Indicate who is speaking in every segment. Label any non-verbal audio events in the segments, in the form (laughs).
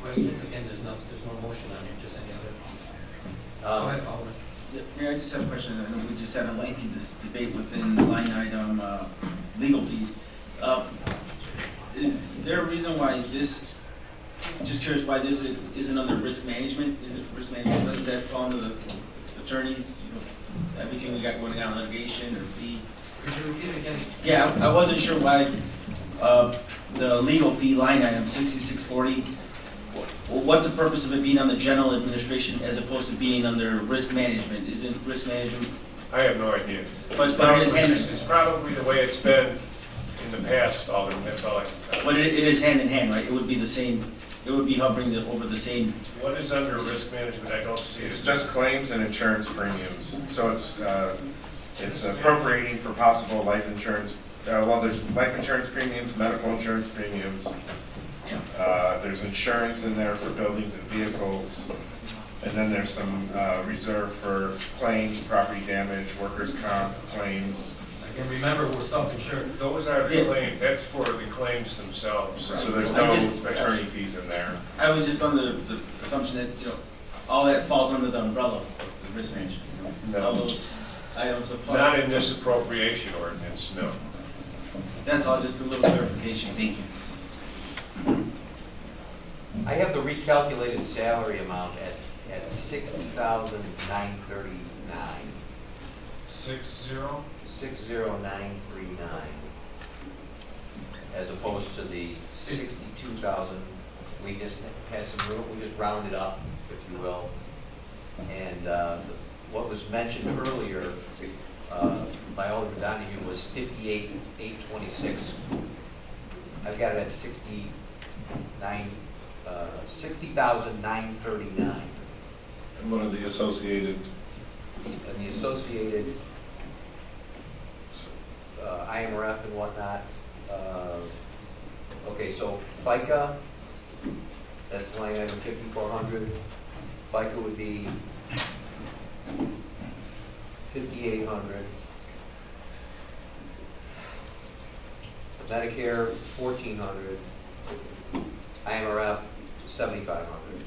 Speaker 1: questions? Again, there's no, there's no motion on it, just any other.
Speaker 2: Um,
Speaker 1: Go ahead, Alderman.
Speaker 3: Yeah, Mayor, I just have a question. I know we just had a lengthy dis- debate within line item uh, legal fees. Uh, Is there a reason why this, just curious why this is- isn't under risk management? Is it risk management, doesn't that fall under the attorneys, you know, everything we got going on litigation or fee?
Speaker 1: Could you repeat again?
Speaker 3: Yeah, I I wasn't sure why uh, the legal fee line item, sixty-six forty, what's the purpose of it being on the general administration as opposed to being under risk management? Isn't risk management,
Speaker 4: I have no idea.
Speaker 3: but it's- but it is hand,
Speaker 4: It's probably the way it's been in the past, Alderman, that's all I can tell you.
Speaker 3: but it it is hand in hand, right? It would be the same, it would be hovering the- over the same,
Speaker 4: What is under risk management, I don't see it.
Speaker 5: It's just claims and insurance premiums, so it's, uh, it's appropriating for possible life insurance, uh, well, there's life insurance premiums, medical insurance premiums. Uh, There's insurance in there for buildings and vehicles, and then there's some uh, reserve for claims, property damage, workers' comp claims.
Speaker 1: Again, remember, we're self-insured.
Speaker 4: Those are the
Speaker 3: Yeah.
Speaker 4: claims, that's for the claims themselves.
Speaker 5: So there's
Speaker 3: I just-
Speaker 5: no attorney fees in there.
Speaker 3: I was just under the assumption that, you know, all that falls under the umbrella of the risk management. you know?
Speaker 5: No.
Speaker 3: All those items
Speaker 4: Not
Speaker 3: apply.
Speaker 4: in this appropriation ordinance, no.
Speaker 3: That's all, just a little clarification, thank you.
Speaker 2: I have the recalculated salary amount at, at sixty thousand nine thirty-nine,
Speaker 4: Six zero?
Speaker 2: six zero nine three nine, as opposed to the sixty-two thousand, we just had some, room. we just rounded up, if you will. And, uh, what was mentioned earlier, uh, by Alderman Donahue was fifty-eight, eight twenty-six. I've got it at sixty-nine, uh, sixty thousand nine thirty-nine.
Speaker 6: And one of the associated,
Speaker 2: And the associated, uh, IMRF and whatnot, uh, okay, so FICA, that's line item fifty-four hundred. FICA would be fifty-eight hundred. Medicare, fourteen hundred. IMRF, seventy-five hundred.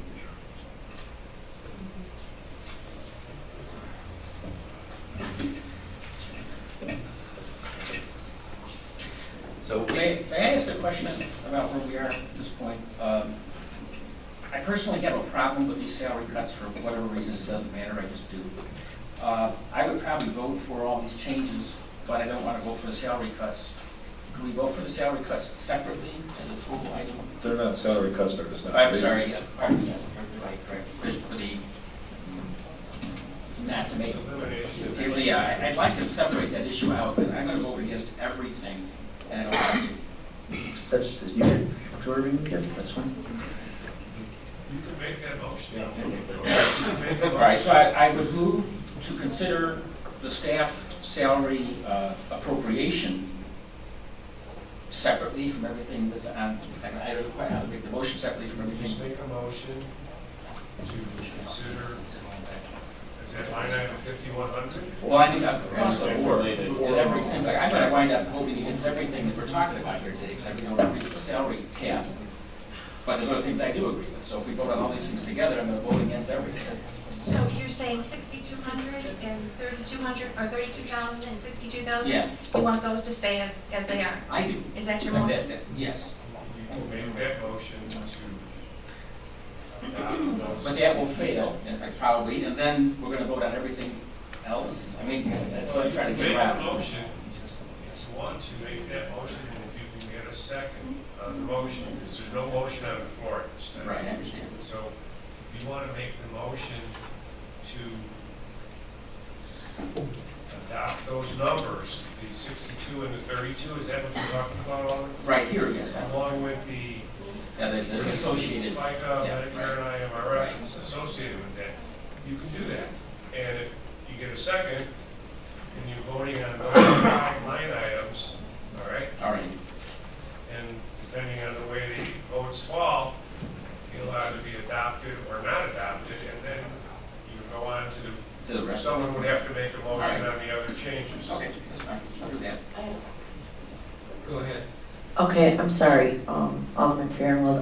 Speaker 2: So we
Speaker 7: May may I ask a question about where we are at this point? Um, I personally have a problem with these salary cuts for whatever reasons, it doesn't matter, I just do. Uh, I would probably vote for all these changes, but I don't want to vote for the salary cuts. Can we vote for the salary cuts separately as a total item?
Speaker 6: they're not salary cuts, they're just not.
Speaker 7: I'm sorry,
Speaker 6: raises.
Speaker 7: yeah, pardon me, yes, you're right, correct. There's for the, not to
Speaker 4: It's
Speaker 7: make
Speaker 4: elimination.
Speaker 7: yeah, well, Yeah, I- uh, I'd like to separate that issue out, because I'm gonna vote against everything, and I don't want to.
Speaker 8: That's, you did, Jordan, you did, that's fine.
Speaker 4: You can make that motion.
Speaker 3: (laughs)
Speaker 4: Make
Speaker 7: All right, so I, I would move to consider the staff salary uh, appropriation separately from everything that's on, and I don't quite how to make the motion separately from
Speaker 4: Just
Speaker 7: everything.
Speaker 4: make a motion to consider, is that line item fifty-one hundred?
Speaker 7: Well, I need to across the board, and every single, I'm gonna wind up voting against everything that we're talking about here today, except we don't agree with the salary cap. But there's other things I do agree with, so if we vote on all these things together, I'm gonna vote against everything.
Speaker 9: So you're saying 6,200 and 3,200, or 32,000 and 62,000?
Speaker 7: Yeah.
Speaker 9: You want those to stay as, as they are?
Speaker 7: I do.
Speaker 9: Is that your
Speaker 7: Like
Speaker 9: motion?
Speaker 7: that- that- Yes.
Speaker 4: You can make that motion to. adopt
Speaker 7: But
Speaker 4: those.
Speaker 7: that will fail, in fact, probably, and then we're gonna vote on everything else. I mean, that's what I'm trying to get
Speaker 4: Make a
Speaker 7: around.
Speaker 4: motion, if you want to make that motion, and if you can get a second on the motion, because there's no motion on the floor at this time.
Speaker 7: Right, I understand.
Speaker 4: So if you want to make the motion to adopt those numbers, the 62 and the 32, is that what you're talking about, Alderman?
Speaker 7: Right here, yes, I-
Speaker 4: Along with the
Speaker 7: yeah, the- the associated,
Speaker 4: FICA,
Speaker 7: Yeah,
Speaker 4: Medicare, uh, and
Speaker 7: Right.
Speaker 4: IMRF associated with that, you can do that. And if you get a second, and you're voting on those five line items, all right?
Speaker 7: all right.
Speaker 4: And depending on the way the votes fall, you're allowed to be adopted or not adopted, and then you go on to,
Speaker 7: To the
Speaker 4: the
Speaker 7: rest.
Speaker 4: someone would have to make a motion
Speaker 7: All
Speaker 4: on the other changes.
Speaker 7: Okay, that's fine, I'll do that.
Speaker 1: Go ahead.
Speaker 10: Okay, I'm sorry, um, Alderman Fairwell,